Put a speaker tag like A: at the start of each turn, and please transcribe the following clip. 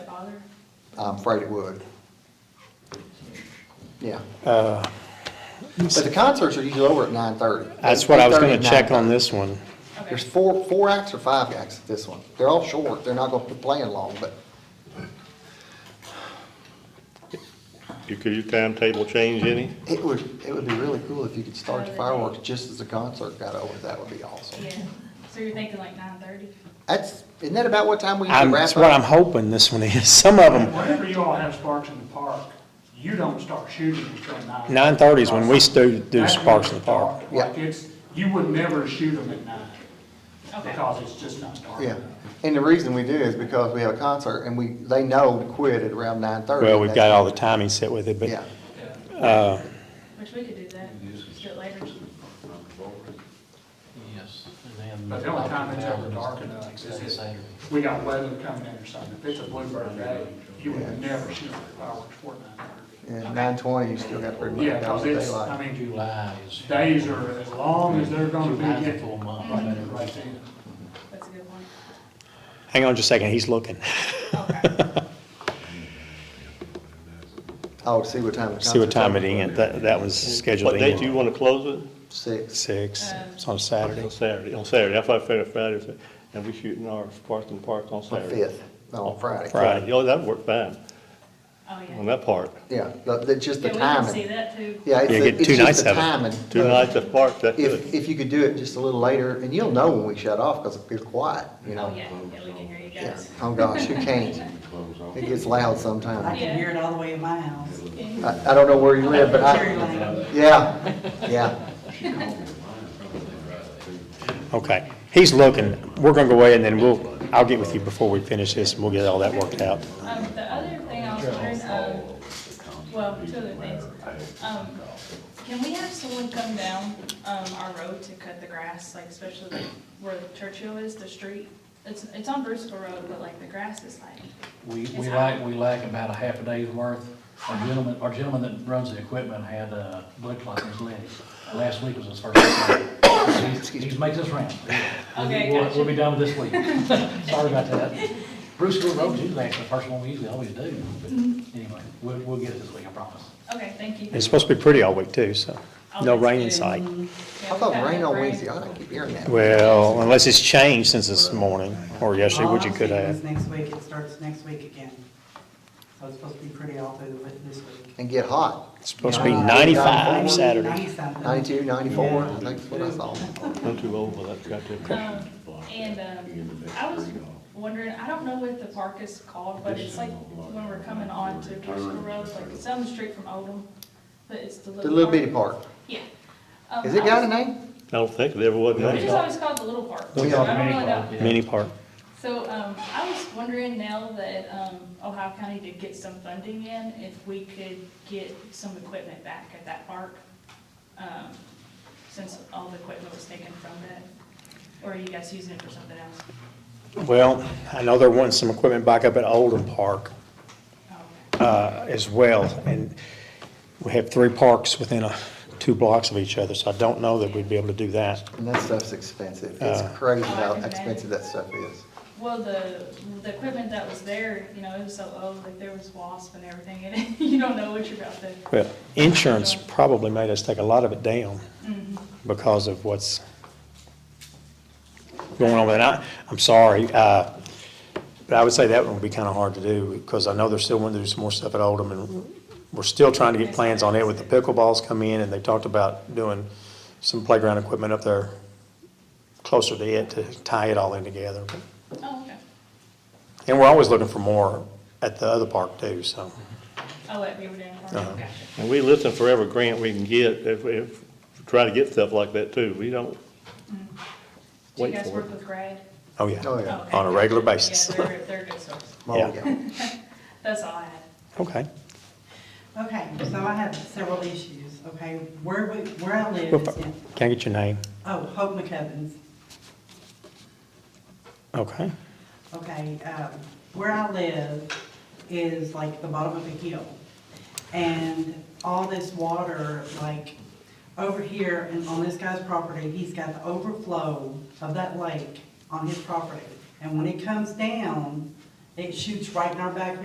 A: bother?
B: I'm afraid it would. Yeah,
C: Uh,
B: but the concerts are usually over at nine thirty.
C: That's what I was gonna check on this one.
A: Okay,
B: There's four, four acts or five acts at this one. They're all short, they're not gonna be playing long, but
D: You- Could your timetable change any?
B: it would, it would be really cool if you could start the fireworks just as the concert got over, that would be awesome.
A: yeah, so you're thinking like nine thirty?
B: That's, isn't that about what time we usually
C: I'm,
B: wrap
C: that's what I'm
B: up?
C: hoping this one is. Some of them,
E: Whenever you all have sparks in the park, you don't start shooting until nine.
C: 9:30 is when we stu- do
E: That's when
C: sparks in
E: it's
C: the park.
E: dark.
B: Yeah.
E: Like it's, you would never shoot them at nine
A: Okay,
E: because it's just not dark.
B: Yeah,
E: enough.
B: and the reason we do is because we have a concert and we, they know to quit at around nine thirty.
C: well, we've got all the timing set with it,
B: Yeah,
C: but,
E: Yeah.
C: uh,
A: which we could do that, just do it later.
F: Yes. and then-
E: But the only time it's ever dark enough is
F: Saturday,
E: if
F: Saturday.
E: we got weather coming in or something. If it's a bluebird day, you would never shoot fireworks before nine thirty.
B: and nine twenty, you still got pretty much
E: Yeah,
B: all
E: because
B: the
E: it's,
B: daylight.
E: I mean,
F: July is.
E: days are as long as they're gonna be.
F: July's a
E: getting-
F: full month,
E: Right,
F: right?
E: right then.
A: That's a good one.
C: hang on just a second, he's looking.
A: Okay,
B: Oh, to see what time the concert's
C: See what time it
B: over.
C: ends. That, that was scheduled
D: What date do you
C: in.
D: want to close it?
B: Six.
C: Six, it's on a Saturday.
D: On Saturday, on Saturday, I thought Friday, Friday, Friday, and we shooting our sparks in the park on
B: On
D: Saturday.
B: fifth, no, on Friday.
C: Friday.
D: Friday, oh, that worked fine,
A: oh, yeah.
D: on that part.
B: Yeah, but that's just the
A: Yeah, we can see
B: timing.
A: that too.
B: Yeah, it's,
C: Yeah,
B: the-
C: get
B: it's
C: two
B: just
C: nights
B: the
C: of it.
B: timing.
D: Two nights at park, that
B: Uh, If,
D: good.
B: if you could do it just a little later, and you'll know when we shut off, because it's quiet, you know?
A: Oh, yeah, yeah, we can hear you
B: Yeah.
A: guys.
B: Oh, gosh, you can't. It gets loud
G: I
B: sometimes.
G: can hear it all the way in my house.
B: I, I don't know where you live, but
G: Cherry
B: I,
G: lane.
B: yeah, yeah.
C: Okay, he's looking. We're gonna go away and then we'll, I'll get with you before we finish this and we'll get all that worked out.
A: Um, the other thing I was wondering, um, well, two other things. Um, can we have someone come down, um, our road to cut the grass, like especially like where Churchill is, the street? It's, it's on Bristol Road, but like the grass is like,
F: We,
A: It's
F: we lack, we lack about a half a day's worth. Our gentleman, our gentleman that runs the equipment had a blood clot in his leg. Last week was his first day. He's- He's made this round. We'll be-
A: Okay,
F: we'll-
A: gotcha.
F: We'll be done with this week. Sorry about that. Bruceville Road's usually actually the first one we usually always do. But
A: Mm-hmm.
F: Anyway, we'll, we'll get it this week, I promise.
A: okay, thank you.
C: It's supposed to be pretty all week too, so no rain in sight.
A: Yeah,
B: I
A: we
B: thought
A: got
B: it rained
A: enough
B: on
A: rain.
B: Wednesday, I keep hearing that.
C: Well, unless it's changed since this morning or yesterday,
G: All
C: which it
G: I'm
C: could
G: seeing
C: have.
G: is Next week, it starts next week again. So it's supposed to be pretty all through the week this week.
B: And get hot,
C: It's supposed to be
G: Uh,
C: 95 Saturday.
G: 90 something.
B: ninety-two, ninety-four, I
G: Yeah.
B: think that's what I saw.
D: I'm too old for that, got to-
A: Um, And, um, I was wondering, I don't know what the park is called, but it's like when we're coming on to Bristol Road, like it's down the street from Odom, but it's the little.
B: The little
A: park.
B: bitty park.
A: Yeah. Um,
B: Has it
A: I
B: got a
A: was-
B: name?
D: I don't think there ever was.
F: No.
A: It's
D: any.
A: just always called the little park.
B: We
A: So I
B: are-
A: don't really know.
C: Mini park.
A: So, um, I was wondering now that, um, Ohio County did get some funding in, if we could get some equipment back at that park, um, since all the equipment was taken from that, or are you guys using it for something else?
C: Well, I know they're wanting some equipment back up at Oldham Park
A: Oh, okay.
C: uh, as well. And we have three parks within a- two blocks of each other, so I don't know that we'd be able to do that.
B: And that stuff's expensive. It's
C: Uh.
B: crazy
A: Oh, I
B: how
A: can
B: expensive that stuff is.
A: Well, the, the equipment that was there, you know, it was so old, like there was wasp and everything in it. You don't know what you're about to.
C: Well, insurance probably made us take a lot of it down because of what's going on with it. I, I'm sorry, uh, but I would say that one would be kind of hard to do because I know they're still wanting to do some more stuff at Oldham and we're still trying to get plans on it with the pickleballs come in and they talked about doing some playground equipment up there closer to it to tie it all in together.
A: Oh, okay.
C: And we're always looking for more at the other park too, so.
A: Oh, at Beaver Dam Park,
C: Uh-huh.
A: gotcha.
D: And we listen for every grant we can get, if, if, try to get stuff like that too, we don't,
A: Do you
D: Wait
A: guys
D: for it.
A: work with Greg?
C: Oh, yeah.
B: Oh, yeah.
A: Oh, okay.
C: On a regular basis.
A: Yeah, they're, they're a good source.
B: Oh,
C: Yeah.
A: That's all I had.
C: Okay.
G: Okay, so I have several issues, okay? Where, we- where I live is in,
C: Can I get your name?
G: oh, Hope McCovens.
C: Okay.
G: Okay, um, where I live is like the bottom of a hill. And all this water, like, over here and on this guy's property, he's got the overflow of that lake on his property. And when it comes down, it shoots right in our backyard.